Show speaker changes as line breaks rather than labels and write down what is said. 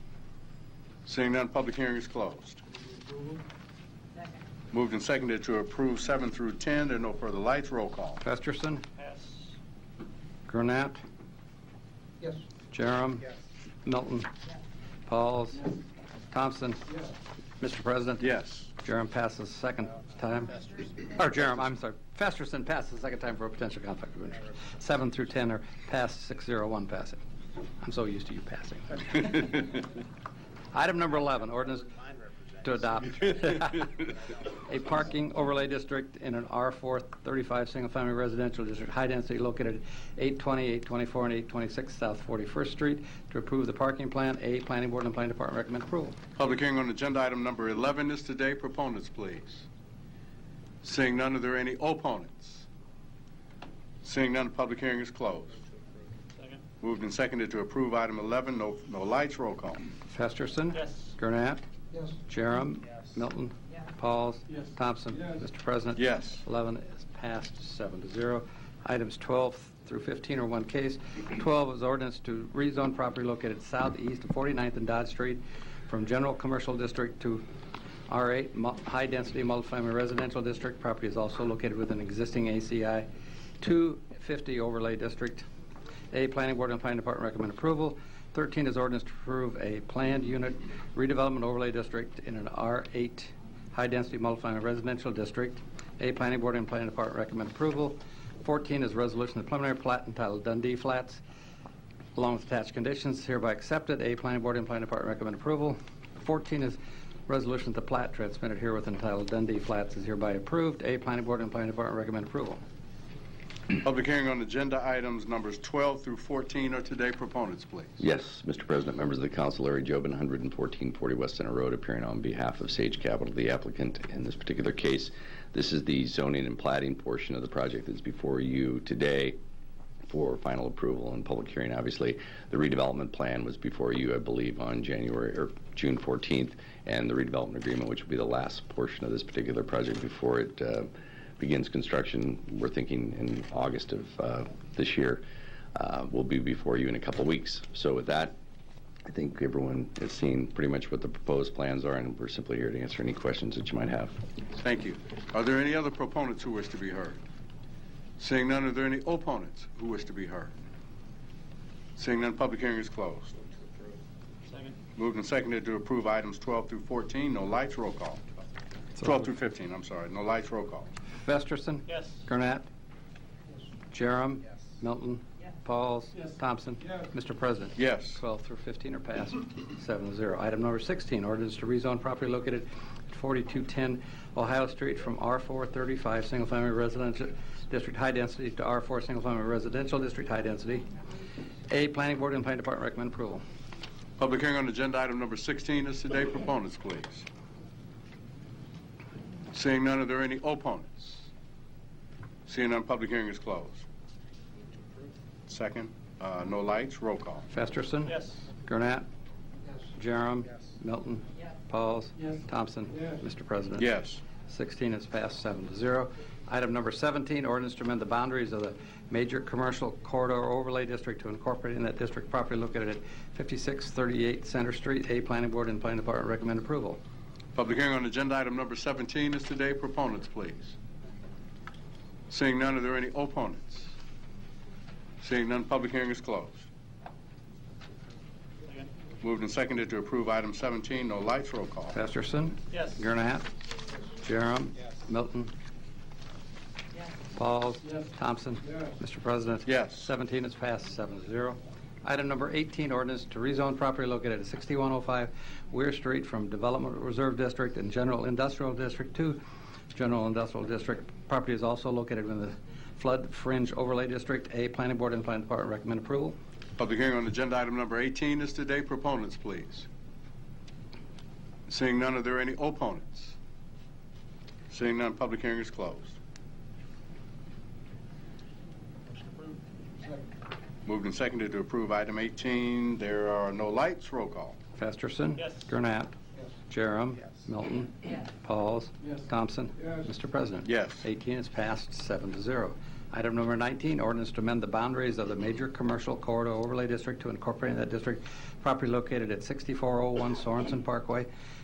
Seeing none, public hearing is closed. Moved and seconded to approve 7 through 10. There are no further lights. Roll call.
Festerson,
Yes.
Gurnett,
Yes.
Jerem.
Yes.
Milton. Pauls. Thompson.
Yes.
Mr. President.
Yes.
Jerem passes second time. Or Jerem, I'm sorry, Festerson passes second time for a potential conflict of interest. Seven through 10 are passed, 601 passing. I'm so used to you passing. Item number 11, ordinance to adopt a parking overlay district in an R4 35 single-family residential district, high density located at 820, 824, and 826 South 41st Street to approve the parking plan. A, Planning Board and Planning Department recommend approval.
Public hearing on agenda item number 11 is today. Proponents, please. Seeing none, are there any opponents? Seeing none, public hearing is closed.
Second.
Moved and seconded to approve item 11. No, no lights. Roll call.
Festerson.
Yes.
Gurnett.
Yes.
Jerem.
Yes.
Milton.
Yes.
Pauls.
Yes.
Thompson.
Yes.
Mr. President.
Yes.
11 is passed, seven to zero. Items 12 through 15 are one case. 12 is ordinance to rezone property located southeast of 49th and Dodge Street from General Commercial District to R8 mu- High Density Multifamily Residential District. Property is also located within existing ACI 250 Overlay District. A, Planning Board and Planning Department recommend approval. 13 is ordinance to approve a planned unit redevelopment overlay district in an R8 high-density multifamily residential district. A, Planning Board and Planning Department recommend approval. 14 is resolution of preliminary plat entitled Dundee Flats, along with attached conditions hereby accepted. A, Planning Board and Planning Department recommend approval. 14 is resolution of the plat transmitted herewith entitled Dundee Flats is hereby approved. A, Planning Board and Planning Department recommend approval.
Public hearing on agenda items numbers 12 through 14 are today. Proponents, please.
Yes, Mr. President, members of the council, Larry Jobin, 11440 West Center Road, appearing on behalf of Sage Capital, the applicant in this particular case. This is the zoning and plating portion of the project that's before you today for final approval and public hearing, obviously. The redevelopment plan was before you, I believe, on January, or June 14th, and the redevelopment agreement, which will be the last portion of this particular project before it uh, begins construction, we're thinking in August of uh, this year, uh, will be before you in a couple of weeks. So with that, I think everyone has seen pretty much what the proposed plans are, and we're simply here to answer any questions that you might have.
Thank you. Are there any other proponents who wish to be heard? Seeing none, are there any opponents who wish to be heard? Seeing none, public hearing is closed.
Second.
Moved and seconded to approve items 12 through 14, no lights, roll call. 12 through 15, I'm sorry, no lights, roll call.
Festerson.
Yes.
Gurnett. Jerem.
Yes.
Milton.
Yes.
Pauls.
Yes.
Thompson.
Yes.
Mr. President.
Yes.
12 through 15 are passed, seven to zero. Item number 16, ordinance to rezone property located at 4210 Ohio Street from R435 Single Family Residential District High Density to R4 Single Family Residential District High Density. A, Planning Board and Planning Department recommend approval.
Public hearing on agenda item number 16 is today. Proponents, please. Seeing none, are there any opponents? Seeing none, public hearing is closed. Second, uh, no lights, roll call.
Festerson.
Yes.
Gurnett.
Yes.
Jerem.
Yes.
Milton.
Yes.
Pauls.
Yes.
Thompson.
Yes.
Mr. President.
Yes.
16 is passed, seven to zero. Item number 17, ordinance to amend the boundaries of the major commercial corridor overlay district to incorporate in that district property located at 5638 Center Street. A, Planning Board and Planning Department recommend approval.
Public hearing on agenda item number 17 is today. Proponents, please. Seeing none, are there any opponents? Seeing none, public hearing is closed.
Second.
Moved and seconded to approve item 17, no lights, roll call.
Festerson.
Yes.
Gurnett. Jerem. Milton.
Yes.
Pauls.
Yes.
Thompson.
Yes.
Mr. President.
Yes.
17 is passed, seven to zero. Item number 18, ordinance to rezone property located at 6105 Weir Street from Development Reserve District and General Industrial District to General Industrial District. Property is also located within the Flood Fringe Overlay District. A, Planning Board and Planning Department recommend approval.
Public hearing on agenda item number 18 is today. Proponents, please. Seeing none, are there any opponents? Seeing none, public hearing is closed.
Motion approved.
Second.
Moved and seconded to approve item 18. There are no lights. Roll call.
Festerson.
Yes.
Gurnett.
Yes.
Jerem.
Yes.
Milton.
Yes.
Pauls.
Yes.
Thompson.
Yes.
Mr. President.
Yes.
18 is passed, seven to zero. Item number 19, ordinance to amend the boundaries of the major commercial corridor overlay district to incorporate in that district property located at 6401 Sorensen Parkway